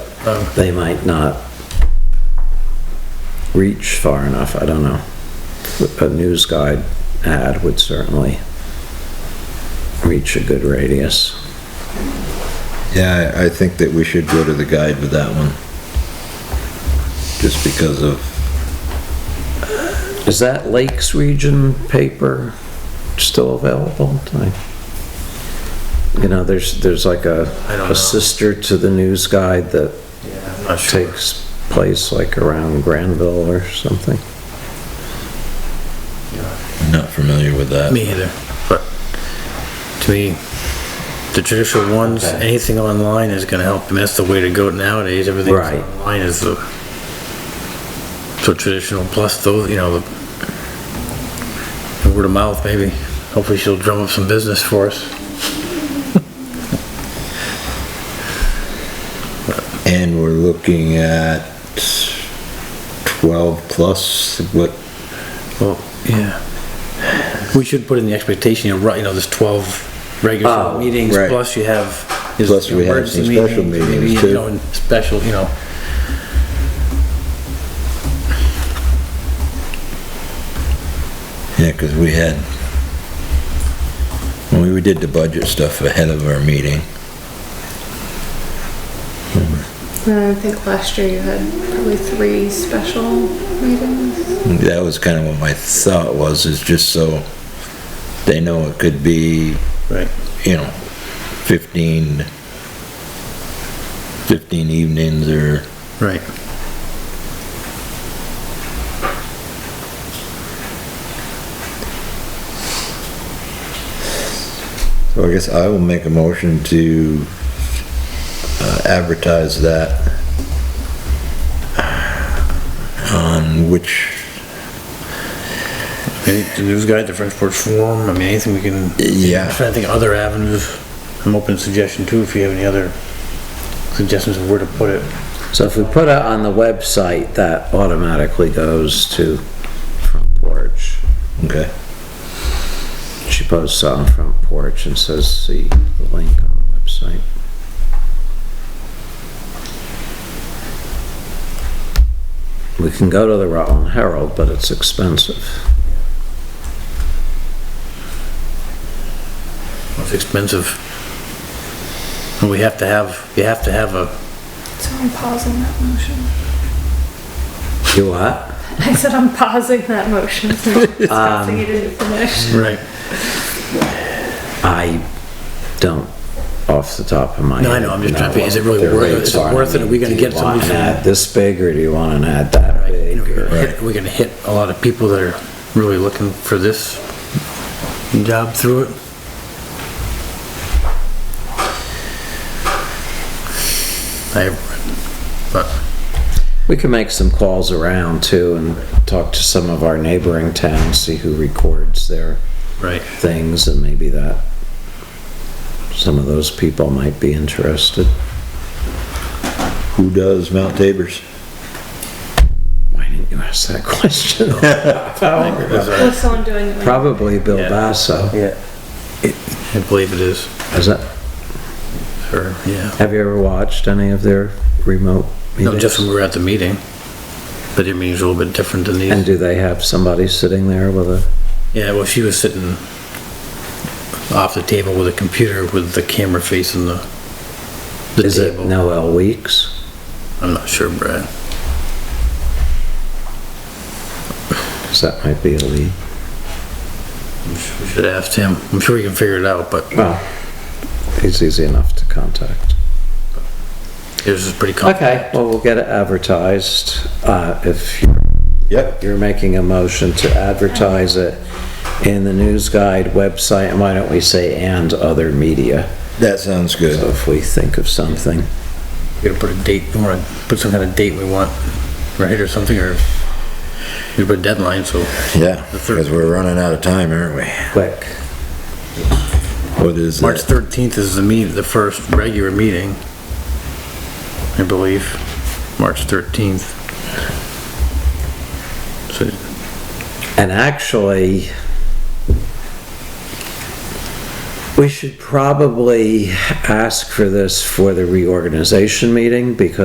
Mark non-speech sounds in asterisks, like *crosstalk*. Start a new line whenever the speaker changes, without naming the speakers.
they might not reach far enough, I don't know. A news guide ad would certainly reach a good radius.
Yeah, I I think that we should go to the guide with that one. Just because of,
Is that Lakes Region paper still available? I- You know, there's, there's like a,
I don't know.
a sister to the news guide that
Yeah, I'm not sure.
takes place like around Granville or something.
not familiar with that.
Me either, but to me, the traditional ones,
Okay.
anything online is gonna help, and that's the way to go nowadays, everything
Right.
online is the, so traditional, plus those, you know, the the word of mouth, maybe, hopefully she'll drum up some business for us.
And we're looking at 12 plus, what,
Well, yeah. We should put in the expectation, you're right, you know, there's twelve regular
Oh,
meetings,
right.
plus you have. there's
Plus we have some
emergency
special
maybe,
meetings,
you
too.
know, and Special, you know.
yeah, because we had, when we did the budget stuff ahead of our meeting,
I think last year you had probably three special meetings.
that was kind of what my thought was, is just so they know it could be
Right.
you know, 15, 15 evenings or,
Right.
so I guess I will make a motion to uh, advertise that on which,
Any- The news guide, the Frenchport Forum, I mean, anything we can.
Yeah.
I'm trying to think of other avenues. I'm open to suggestion too, if you have any other suggestions of where to put it.
So if we put it on the website, that automatically goes to Front Porch.
okay,
She posts on Front Porch and says, see the link on the website. We can go to the Rutland Herald, but it's expensive.
It's expensive. And we have to have, you have to have a,
So I'm pausing that motion.
You what?
I said I'm pausing that motion *laughs* since discussing you didn't finish.
right.
I don't, off the top of my head.
No, I know, I'm just trying to think, is it really
what their
worth it?
rates
Is it
are. I
worth it? Are we
mean,
gonna
do you
get somebody
want an
from-
ad This big, or do you want an ad that
Right, you
big?
know, We're
or-
gonna hit- we're gonna hit a lot of people that are really looking for this job through it. I, but,
We can make some calls around too and talk to some of our neighboring towns, see who records their
right,
things and maybe that, some of those people might be interested.
who does Mount Tabor's?
Why didn't you ask that *laughs* question?
Is that-
Was someone doing it?
Probably Bill
Yeah.
Basso.
Yeah. I believe it is,
Is that,
or, yeah.
have you ever watched any of their remote
No, just when
meetings?
we were at the meeting, but your meeting's a little bit different than
And
these.
do they have somebody sitting there with a,
Yeah, well, she was sitting off the table with a computer with the camera facing the, the
is it
table.
Noel Weeks?
I'm not sure, Brad.
Because that might be a lead.
We should have asked him. I'm sure he can figure it out, but
Well, he's easy enough to contact.
Yours is pretty common.
Okay, well, we'll get it advertised. Uh, If you're
Yep.
you're making a motion to advertise it in the news guide website, and why don't we say and other media?
That sounds
So
good.
if we think of something,
We gotta put a date, we wanna put some kind of date we want, right, or something, or we put a deadline, so.
Yeah,
The third-
because we're running out of time, aren't we?
quick.
What is
March
that?
thirteenth is the meet, the first regular meeting, I believe, March thirteenth. So,
And actually, we should probably ask for this for the reorganization meeting because